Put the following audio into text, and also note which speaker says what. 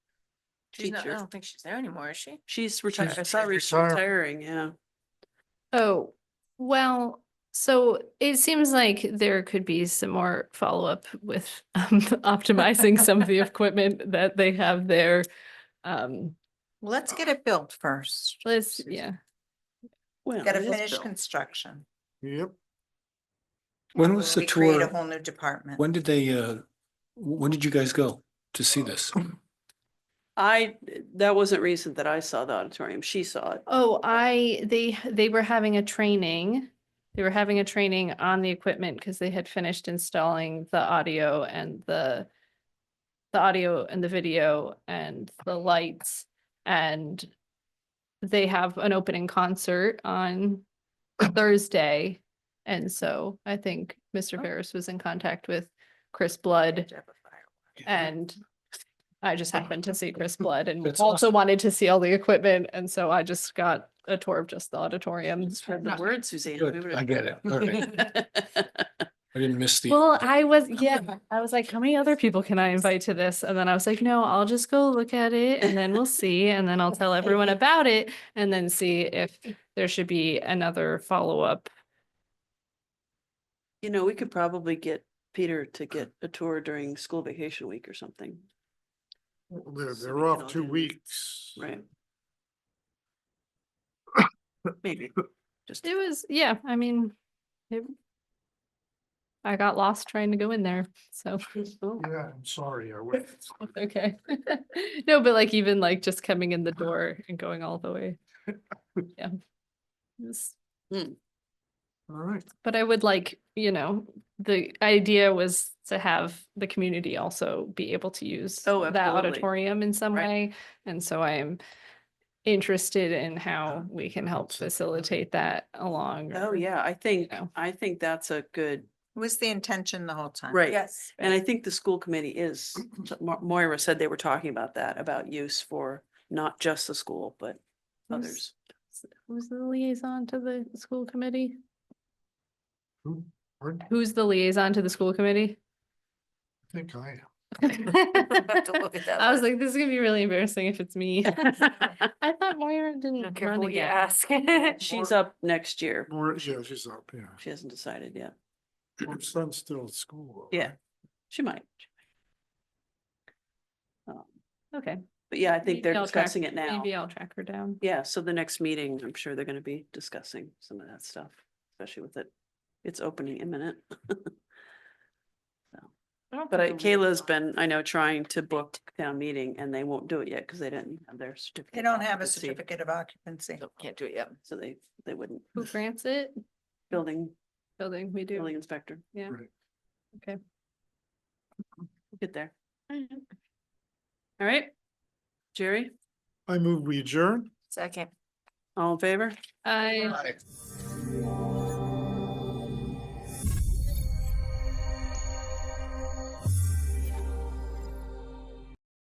Speaker 1: She's not, I
Speaker 2: teacher.
Speaker 1: don't think she's there anymore, is she?
Speaker 2: She's retired. I saw her she's
Speaker 3: retired.
Speaker 2: retiring, yeah.
Speaker 4: Oh, well, so it seems like there could be some more follow-up with um, optimizing some of the equipment that they have there. Um,
Speaker 5: Well, Let's get it built first.
Speaker 4: let's, yeah,
Speaker 2: Well,
Speaker 5: Got to
Speaker 2: it is
Speaker 5: finish
Speaker 2: built.
Speaker 5: construction.
Speaker 3: Yep.
Speaker 6: When
Speaker 5: before
Speaker 6: was the
Speaker 5: we create
Speaker 6: tour?
Speaker 5: A whole new department.
Speaker 6: When did they, uh, when did you guys go to see this?
Speaker 2: I, that wasn't recent that I saw the auditorium. She saw it.
Speaker 4: Oh, I, they, they were having a training. They were having a training on the equipment because they had finished installing the audio and the the audio and the video and the lights and they have an opening concert on Thursday. And so I think Mr.
Speaker 5: Oh.
Speaker 4: Veras was in contact with Chris Blood
Speaker 5: To have a firework.
Speaker 4: and I just happened to see Chris Blood and
Speaker 6: That's
Speaker 4: also wanted to see all the equipment. And so I just got a tour of just the auditorium.
Speaker 2: Spread the word, Suzanne.
Speaker 6: Good,
Speaker 2: We would've-
Speaker 6: I get it. All I didn't miss the.
Speaker 4: Well, I was, yeah, I was like, how many other people can I invite to this? And then I was like, no, I'll just go look at it and then we'll see. And then I'll tell everyone about it and then see if there should be another follow-up.
Speaker 2: You know, we could probably get Peter to get a tour during school vacation week or something,
Speaker 3: Well, They're,
Speaker 2: So we
Speaker 3: they're
Speaker 2: can
Speaker 3: off
Speaker 2: all
Speaker 3: two
Speaker 2: do it.
Speaker 3: weeks.
Speaker 2: right? Maybe, just,
Speaker 4: It was, yeah, I mean, it, I got lost trying to go in there, so.
Speaker 2: oh,
Speaker 3: Yeah, I'm sorry, I went.
Speaker 4: Okay. No, but like even like just coming in the door and going all the way. Yeah. It was-
Speaker 3: All right,
Speaker 4: But I would like, you know, the idea was to have the community also be able to use
Speaker 2: Oh,
Speaker 4: that
Speaker 2: absolutely.
Speaker 4: auditorium in some
Speaker 2: Right.
Speaker 4: way. And so I am interested in how we can help facilitate that along.
Speaker 2: oh,
Speaker 4: or,
Speaker 2: yeah, I think,
Speaker 4: know.
Speaker 2: I think that's a good,
Speaker 5: It Was the intention the whole time.
Speaker 2: right.
Speaker 1: Yes.
Speaker 2: And I think the school committee is, Mo- Moira said they were talking about that, about use for not just the school, but
Speaker 4: Who's-
Speaker 2: others.
Speaker 4: Who's the liaison to the school committee?
Speaker 3: Who- pardon?
Speaker 4: Who's the liaison to the school committee?
Speaker 3: I think I am.
Speaker 1: have to look at that
Speaker 4: I was
Speaker 1: list.
Speaker 4: like, this is gonna be really embarrassing if it's me. I thought Moira didn't
Speaker 1: Careful
Speaker 4: run
Speaker 1: what you
Speaker 4: again.
Speaker 1: ask.
Speaker 2: She's up next year.
Speaker 3: Nora- yeah, she's up, yeah.
Speaker 2: She hasn't decided yet.
Speaker 3: Her son's still at school. though,
Speaker 2: Yeah.
Speaker 3: right?
Speaker 2: She might. Um,
Speaker 4: Okay.
Speaker 2: But yeah, I think
Speaker 4: maybe
Speaker 2: they're
Speaker 4: I'll track-
Speaker 2: discussing it now.
Speaker 4: Maybe I'll track her down.
Speaker 2: Yeah, so the next meeting, I'm sure they're gonna be discussing some of that stuff, especially with it, it's opening imminent. But I- Kayla's been, I know, trying to book town meeting and they won't do it yet because they didn't have their certificate.
Speaker 5: They
Speaker 2: of
Speaker 5: don't have a
Speaker 2: occupancy,
Speaker 5: certificate of occupancy.
Speaker 1: Nope, Can't do it yet.
Speaker 2: So they, they wouldn't.
Speaker 4: Who grants it?
Speaker 2: Building,
Speaker 4: Building, we
Speaker 2: building
Speaker 4: do.
Speaker 2: inspector,
Speaker 4: Yeah.
Speaker 3: Right.
Speaker 4: Okay.
Speaker 2: get there.
Speaker 4: Alright.
Speaker 2: All right. Jerry,
Speaker 3: I move we adjourn.
Speaker 1: Second.
Speaker 2: all in favor?
Speaker 4: I.
Speaker 3: Aye.